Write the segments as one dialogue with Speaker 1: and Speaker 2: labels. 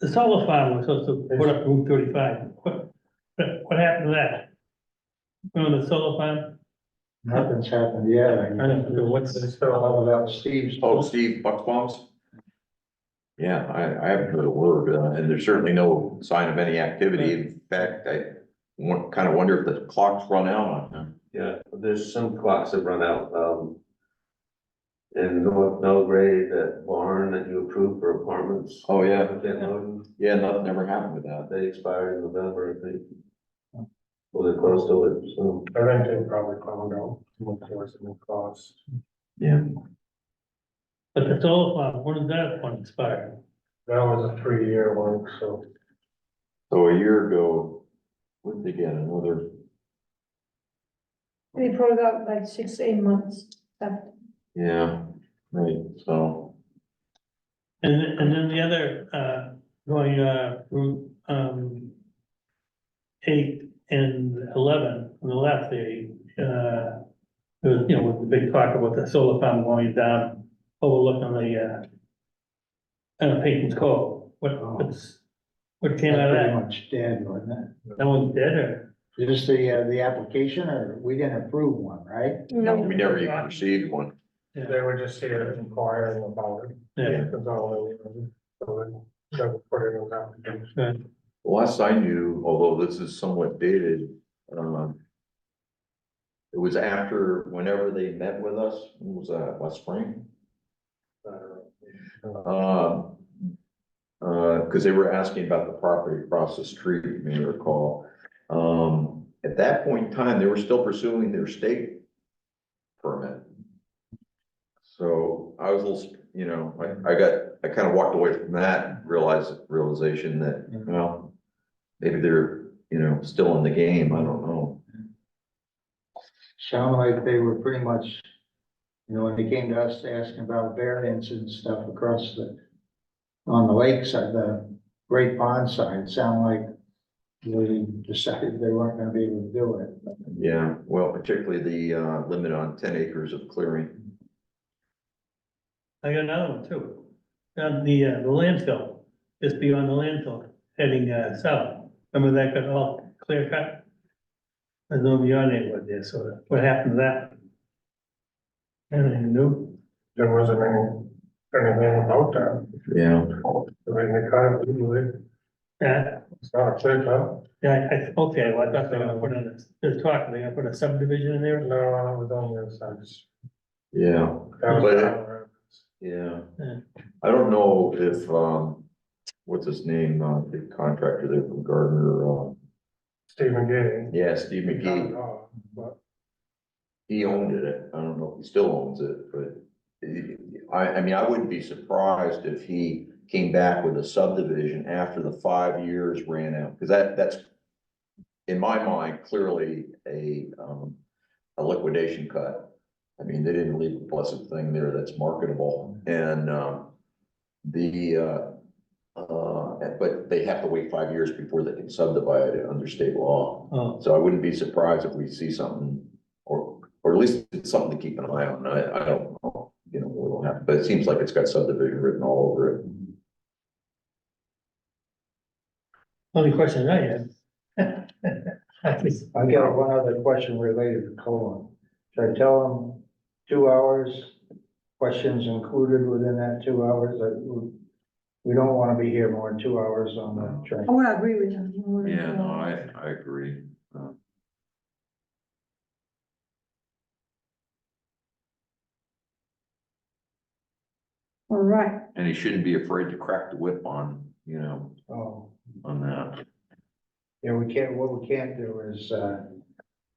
Speaker 1: The solar farm was supposed to put up Route thirty-five. What, what happened to that? Remember the solar farm?
Speaker 2: Nothing's happened yet. I
Speaker 1: don't know, what's the-
Speaker 2: Still all about Steve's.
Speaker 3: Oh, Steve, buck bombs? Yeah, I, I haven't heard a word, uh, and there's certainly no sign of any activity. In fact, I kind of wonder if the clock's run out on them.
Speaker 4: Yeah, there's some clocks that run out, um. In North Belgrade, that barn that you approved for apartments.
Speaker 3: Oh, yeah,
Speaker 4: With that loan,
Speaker 3: yeah, nothing ever happened with that.
Speaker 4: they expire in November, I think. Well, they're close to it, so.
Speaker 2: I think they probably found out what course it will cost.
Speaker 3: Yeah.
Speaker 1: But the solar farm, when did that one expire?
Speaker 2: That was a three-year one, so.
Speaker 3: So a year ago, what did they get, another,
Speaker 5: They probably got like six, eight months left.
Speaker 3: yeah, right, so,
Speaker 1: And, then- and then the other, uh, going, uh, Route, um, eight and eleven, on the left there, uh, there was, you know, with the big talk about the solar farm going down, overlooking the, uh, uh, Peyton's Cove. What, what's, what came out of
Speaker 2: Pretty
Speaker 1: Oh. that?
Speaker 2: much dead, wasn't
Speaker 1: That one's dead or?
Speaker 2: it? Just the, uh, the application, or we didn't approve one, right?
Speaker 3: no, we never even received one.
Speaker 1: Yeah.
Speaker 2: were just here inquiring about it.
Speaker 1: Yeah.
Speaker 2: That's all they were. So they put it on application.
Speaker 3: The Last I knew, although this is somewhat dated, um. It was after, whenever they met with us, When was that, last spring? Um. Uh, cause they were asking about the property across the street, you may recall. Um, at that point in time, they were still pursuing their state permit. So I was a little, you know, I, I got, I kind of walked away from that, realized, realization that,
Speaker 2: Mhm.
Speaker 3: well, maybe they're, you know, still in the game, I don't know.
Speaker 2: Sound like they were pretty much, you know, when they came to us asking about variance and stuff across the, on the lake side, the Great Pond side, sound like they decided they weren't gonna be able to do it.
Speaker 3: Yeah, well, particularly the, uh, limit on ten acres of clearing.
Speaker 1: I got another one too. Down the, uh, the landfill, just beyond the landfill, heading, uh, south. Remember that got all clear cut? There's nobody on it with there, so what happened to that? Anything new?
Speaker 2: There wasn't any, anything about that. I
Speaker 3: Yeah.
Speaker 2: mean, they kind of,
Speaker 1: Yeah,
Speaker 2: it's not a clear cut.
Speaker 1: yeah, I, okay, well, I thought they were gonna put in, this- they're talking, they're gonna put a subdivision in there.
Speaker 2: No, I was on the other side.
Speaker 3: Yeah, But- yeah.
Speaker 1: Yeah.
Speaker 3: I don't know if, um, what's his name, uh, the contractor there from Gardner, uh,
Speaker 2: Stephen Gay.
Speaker 3: yeah, Steve McGee, he owned it. I don't know if he still owns it, but I, I mean, I wouldn't be surprised if he came back with a subdivision after the five years ran out, because that, that's in my mind, clearly a, um, a liquidation cut. I mean, they didn't leave a blessed thing there that's marketable and, um, the, uh, uh, but they have to wait five years before they can subdivide it under state law.
Speaker 1: Oh,
Speaker 3: So I wouldn't be surprised if we see something, or, or at least it's something to keep an eye on, I, I don't know, you know, what'll happen, but it seems like it's got subdivision written all over it.
Speaker 1: only question I had. I just-
Speaker 2: I got one other question related to colon. Should I tell them two hours, questions included within that two hours? That we- We don't want to be here more than two hours on the
Speaker 5: I
Speaker 2: train.
Speaker 5: would agree with you. I would agree.
Speaker 3: I agree. Uh,
Speaker 5: All right,
Speaker 3: And he shouldn't be afraid to crack the whip on, you know,
Speaker 2: Oh,
Speaker 3: on that.
Speaker 2: Yeah, we can't, what we can't do is uh,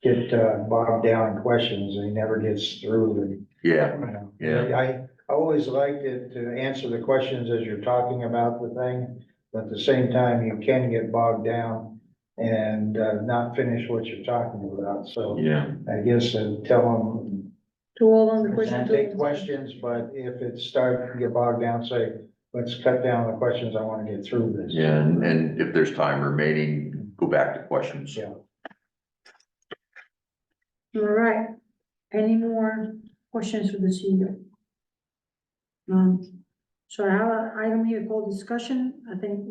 Speaker 2: get uh, bogged down in questions and he never gets through the
Speaker 3: Yeah, yeah,
Speaker 2: I, I always liked it to answer the questions as you're talking about the thing, but at the same time, you can get bogged down and uh, not finish what you're talking about, so
Speaker 3: yeah,
Speaker 2: I guess uh, tell them,
Speaker 5: to all on the questions.
Speaker 2: take questions, but if it starts to get bogged down, say, let's cut down the questions, I want to get through this.
Speaker 3: yeah, and, and if there's time remaining, go back to questions.
Speaker 2: Yeah.
Speaker 5: All right, any more questions for the E CEO? Um, so I, I don't hear call discussion, I think